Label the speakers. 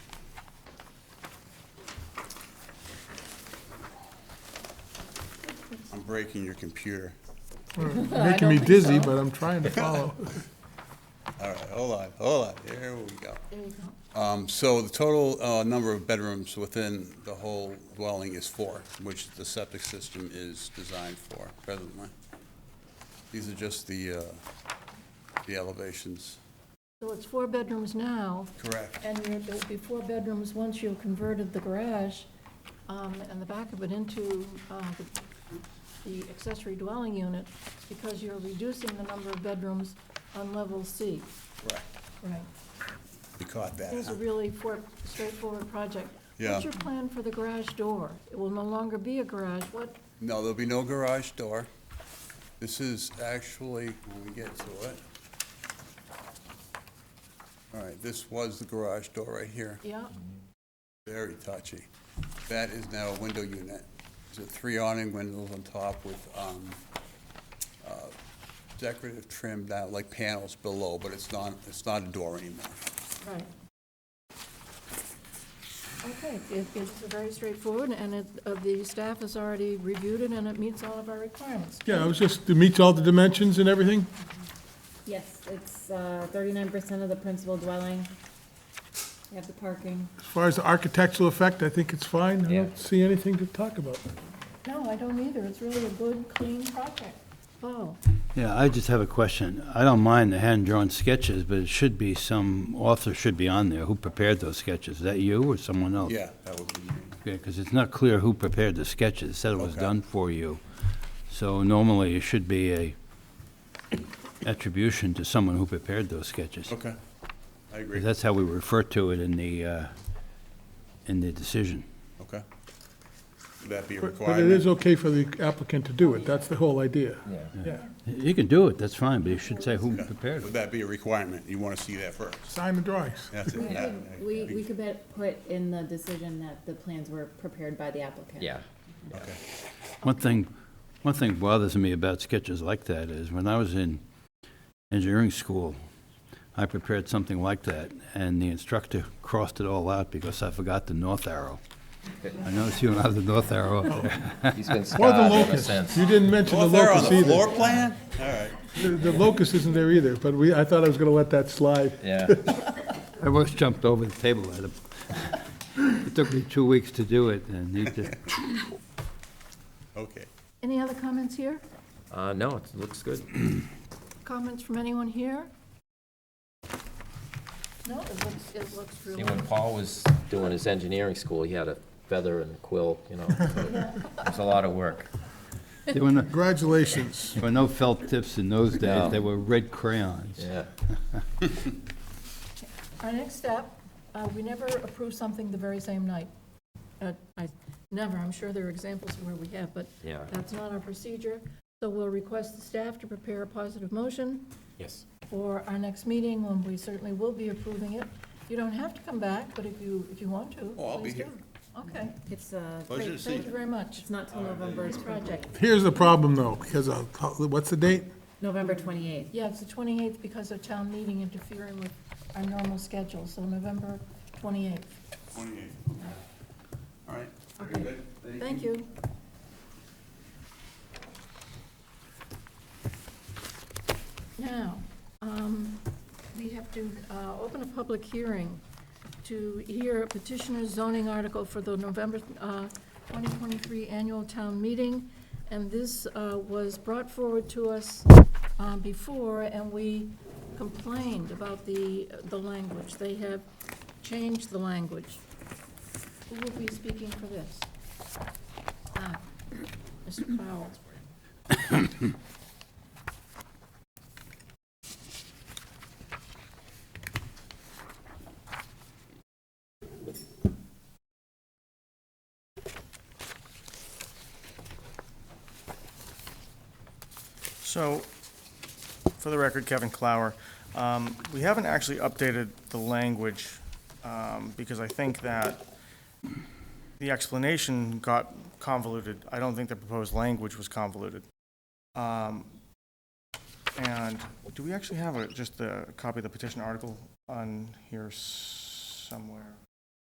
Speaker 1: breaking your computer.
Speaker 2: Making me dizzy, but I'm trying to follow.
Speaker 1: All right, hold on, hold on, here we go. Um, So the total uh, number of bedrooms within the whole dwelling is four, which the septic system is designed for presently. These are just the, uh, the elevations.
Speaker 3: So it's four bedrooms now,
Speaker 1: Correct.
Speaker 3: and there there will be four bedrooms once you've converted the garage um, and the back of it into uh, the- the accessory dwelling unit, because you're reducing the number of bedrooms on level C.
Speaker 1: Correct.
Speaker 3: Right.
Speaker 1: You caught that,
Speaker 3: It's a
Speaker 1: huh?
Speaker 3: really for- straightforward project.
Speaker 1: Yeah.
Speaker 3: What's your plan for the garage door? It will no longer be a garage. What,
Speaker 1: No, there'll be no garage door. This is actually, when we get to it. All right, this was the garage door right here.
Speaker 3: yeah,
Speaker 1: Very touchy. That is now a window unit. There's a three awning windows on top with um, uh, decorative trim that, like panels below, but it's not, it's not a door anymore.
Speaker 3: right. Okay, it- it's very straightforward, and it, uh, the staff has already reviewed it, and it meets all of our requirements.
Speaker 2: Yeah, it was just, it meets all the dimensions and everything?
Speaker 4: Yes, it's uh, thirty-nine percent of the principal dwelling. You have the parking.
Speaker 2: As far as the architectural effect, I think it's fine. I
Speaker 5: Yeah.
Speaker 2: don't see anything to talk about.
Speaker 3: No, I don't either. It's really a good, clean project. Oh,
Speaker 6: Yeah, I just have a question. I don't mind the hand-drawn sketches, but it should be some author should be on there. Who prepared those sketches? Is that you or someone else?
Speaker 1: Yeah, that would be,
Speaker 6: Because it's not clear who prepared the sketches. It said it was
Speaker 1: Okay.
Speaker 6: done for you. So normally, it should be a attribution to someone who prepared those sketches.
Speaker 1: okay. I agree.
Speaker 6: 'Cause That's how we refer to it in the, uh, in the decision.
Speaker 1: Okay. Would that be a
Speaker 2: But but it is
Speaker 1: requirement?
Speaker 2: okay for the applicant to do it, that's the whole idea. Yeah.
Speaker 6: You can do it, that's fine, but you should say who prepared
Speaker 1: Would
Speaker 6: it.
Speaker 1: that be a requirement? You want to see that first?
Speaker 2: Sign the drawings.
Speaker 1: That's it. That-
Speaker 4: We, we could bet- put in the decision that the plans were prepared by the applicant.
Speaker 5: Yeah.
Speaker 1: Okay.
Speaker 6: One thing, one thing bothers me about sketches like that is when I was in engineering school, I prepared something like that, and the instructor crossed it all out because I forgot the north arrow. I noticed you don't have the north arrow up there.
Speaker 5: He's been
Speaker 2: Or the
Speaker 5: scarred ever
Speaker 2: locust.
Speaker 5: since.
Speaker 2: You didn't mention the
Speaker 1: Well, if they're on
Speaker 2: locust
Speaker 1: the floor
Speaker 2: either.
Speaker 1: plan? All right.
Speaker 2: The the locust isn't there either, but we, I thought I was going to let that slide.
Speaker 5: Yeah.
Speaker 6: I almost jumped over the table at him. It took me two weeks to do it, and he just,
Speaker 1: Okay.
Speaker 3: any other comments here?
Speaker 5: Uh, no, it looks good.
Speaker 3: Comments from anyone here? No, it looks, it looks
Speaker 5: See,
Speaker 3: really,
Speaker 5: when Paul was doing his engineering school, he had a feather and a quill, you know. It was a lot of work.
Speaker 6: there were no,
Speaker 2: Congratulations.
Speaker 6: there were no felt tips in those
Speaker 5: No.
Speaker 6: days. They were red crayons.
Speaker 5: Yeah.
Speaker 3: our next step, uh, we never approve something the very same night. Uh, I, never, I'm sure there are examples where we have, but
Speaker 5: Yeah.
Speaker 3: that's not our procedure. So we'll request the staff to prepare a positive motion
Speaker 5: Yes.
Speaker 3: for our next meeting, when we certainly will be approving it. You don't have to come back, but if you, if you want to,
Speaker 1: Oh, I'll be
Speaker 3: please do.
Speaker 1: here.
Speaker 3: Okay,
Speaker 4: It's, uh,
Speaker 1: Pleasure to see
Speaker 3: thank you
Speaker 1: you.
Speaker 3: very much.
Speaker 4: it's not till November,
Speaker 3: This project,
Speaker 2: Here's the problem, though, because of, what's the date?
Speaker 4: November twenty-eighth.
Speaker 3: yeah, it's the 28th because of town meeting interfering with our normal schedule, so November 28th.
Speaker 1: Twenty-eight. All right. Very
Speaker 3: Okay.
Speaker 1: good.
Speaker 3: Thank you. Now, um, we have to uh, open a public hearing to hear petitioner's zoning article for the November uh, 2023 annual town meeting, and this uh, was brought forward to us uh, before, and we complained about the, the language. They have changed the language. Who will be speaking for this? Ah, Mr. Powell.
Speaker 7: So, for the record, Kevin Clower, um, we haven't actually updated the language, um, because I think that the explanation got convoluted. I don't think the proposed language was convoluted. Um, And do we actually have a- just the copy of the petition article on here somewhere?